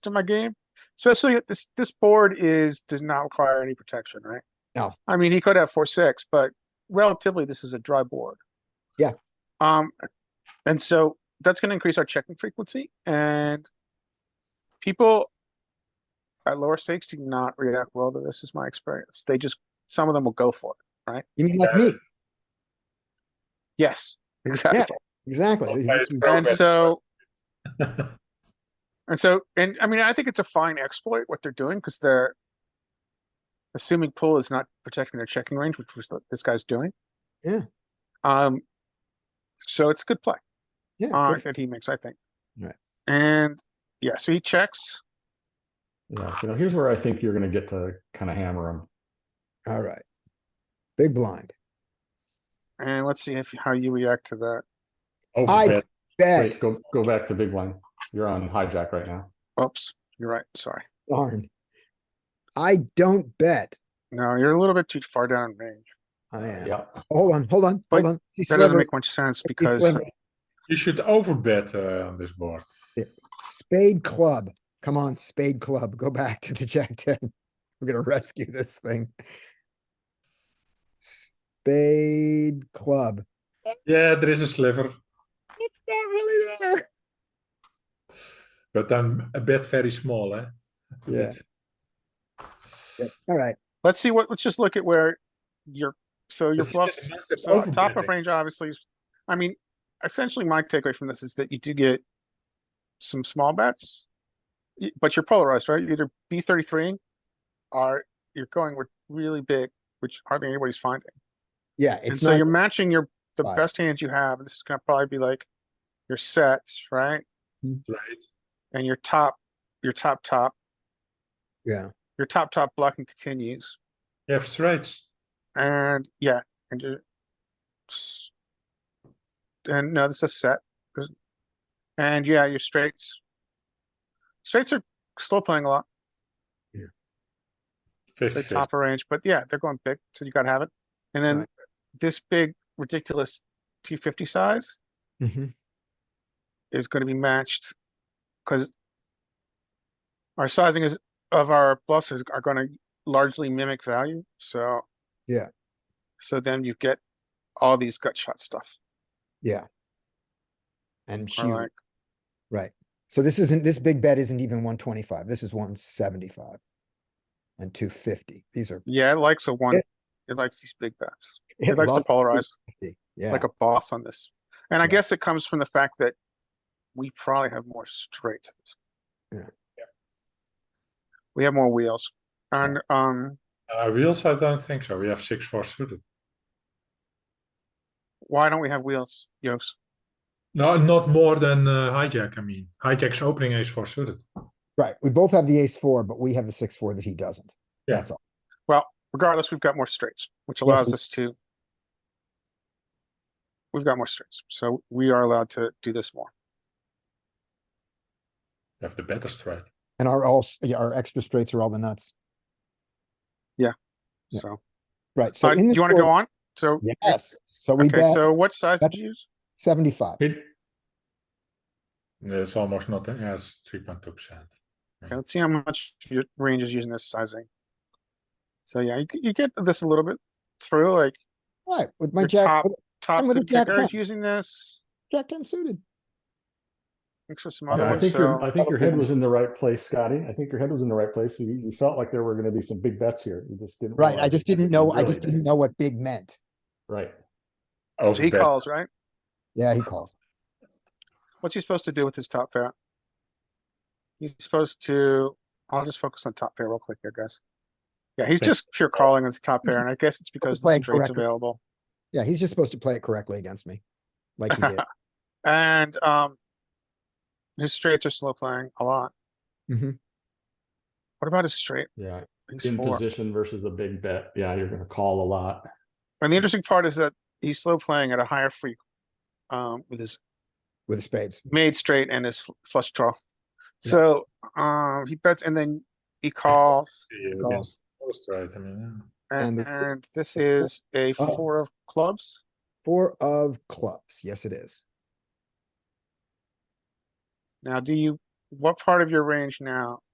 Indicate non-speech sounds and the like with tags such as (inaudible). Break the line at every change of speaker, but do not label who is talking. to my game. Especially at this, this board is, does not require any protection, right?
No.
I mean, he could have four, six, but relatively, this is a dry board.
Yeah.
Um, and so that's gonna increase our checking frequency and people at lower stakes do not react well to this, is my experience. They just, some of them will go for it.
You mean like me?
Yes, (laughs) exactly.
Exactly.
Okay, it's
You-
pro-
And
Progress.
so
It's
And so, and I mean, I think it's a fine exploit what they're doing because they're assuming pool is not protecting their checking range, which was what this guy's doing.
Yeah.
Um, so it's a good play
yeah,
uh,
good-
that he makes, I think.
Right.
And yeah, so he checks.
Yeah, so now here's where I think you're gonna get to kind of hammer him.
All right. Big blind.
And let's see if how you react to that.
I
Overbet. Wait,
bet.
go, go back to big line. You're on hijack right now.
Oops, you're right. Sorry.
Darn. I don't bet.
No, you're a little bit too far down in range.
I am. Oh,
Yeah.
Hold on, hold on,
Wait,
hold on. See
That doesn't
sliver,
make much sense
see
because
sliver.
You should overbet uh, on this board.
Yeah. Spade club. Come on, spade club. Go back to the jack (laughs) ten. We're gonna rescue this thing. Spade club.
Yeah, there er is a sliver,
It's not really there.
but I'm a bet very small, eh?
Yeah. All right.
let's see what, let's just look at where you're, so your
It's-
bluffs.
it's a massive
So top of
overbetting.
range obviously is, I mean, essentially my takeaway from this is that you do get some small bets. y- But you're polarized, right? You're Either B thirty-three or you're going with really big, which hardly anybody's finding.
Yeah,
And
it's
so you're
not,
matching your, the
Five.
best hands you have. and This is gonna probably be like your sets, right?
Right.
And your top, your top, top,
yeah,
your top, top blocking continues.
You have straights.
And yeah, and you s- and no, this is a set. 'cause- And yeah, your straights. Straights are still playing a lot. They
50,
top of range, but yeah, they're going big, so you gotta have it. And then
Right.
this big ridiculous T fifty size Mm-hmm.
Mhm.
is gonna be matched because our sizing is of our bluffs is are gonna largely mimic value, so.
Yeah.
So then you get all these gut shot stuff.
yeah. And
or
huge,
like-
right. So this isn't, this big bet isn't even one twenty-five. This is one seventy-five. And two fifty. These are.
Yeah, it likes a one. It likes these big bets. It likes to
loves
polarize
50. Yeah,
like a boss on this. And I
Yeah.
guess it comes from the fact that we probably have more straight.
Yeah.
We have more wheels and, um,
Uh, wheels, I don't think so. We have six, four suited.
why don't we have wheels, Yost?
No, not more than uh, hijack, I mean. Hijack's opening ace four suited.
right. We both have the ace four, but we have the six, four that he doesn't.
Yeah.
That's all.
Regardless, we've got more straights, which
Yes,
allows
we-
us to. We've got more straights, so we are allowed to do this more.
You have the better straight.
And our all, s- yeah, our extra straights are all the nuts. Yeah.
So,
Right. So
uh,
in
do
this
you wanna
board-
go on? So,
Yes. So we
okay,
bet
so what size
bet-
did you use?
seventy-five.
It's almost nothing. Yes, 3.2%.
Okay, let's see how much your range is using this sizing. So yeah, you, you get this a little bit through, like
Right, with my
Your
jack,
top- top
I'm gonna
good
jack
kicker is
ten.
using this.
jack ten suited.
Thanks for some
Yeah,
other
I
ones,
think your,
so,
I think your head
Okay.
was in the right place, Scotty. I think your head was in the right place. You, you felt like there were gonna be some big bets here. You just
Oh,
didn't.
Right, I
realize
just
it.
didn't
You
know, I
really
just didn't know what big meant.
Right.
so he
Overbet.
calls, right?
Yeah, he calls.
What's he supposed to do with his top pair? He's supposed to, I'll just focus on top pair real quick here, guys. Yeah, he's
Okay.
just pure calling with top pair, and I guess it's because the
playing
straight's
correctly.
available.
Yeah, he's just supposed to play it correctly against me. Like
(laughs)
he did.
And, um, his straights are slow playing a lot.
Mhm.
What about his straight?
Yeah,
He's
in
four.
position versus a big bet. Yeah, you're gonna call a lot.
And the interesting part is that he's slow playing at a higher freak, um, with his
with the spades.
made straight and his fl- flush draw.
Yeah.
So, um, he bets and then he calls
Yeah,
Calls.
Four straight, I mean.
and,
And the-
and this
the four-
is a
Oh.
four of clubs.
Four of clubs. Yes, it is.
Now, do you what part of your range now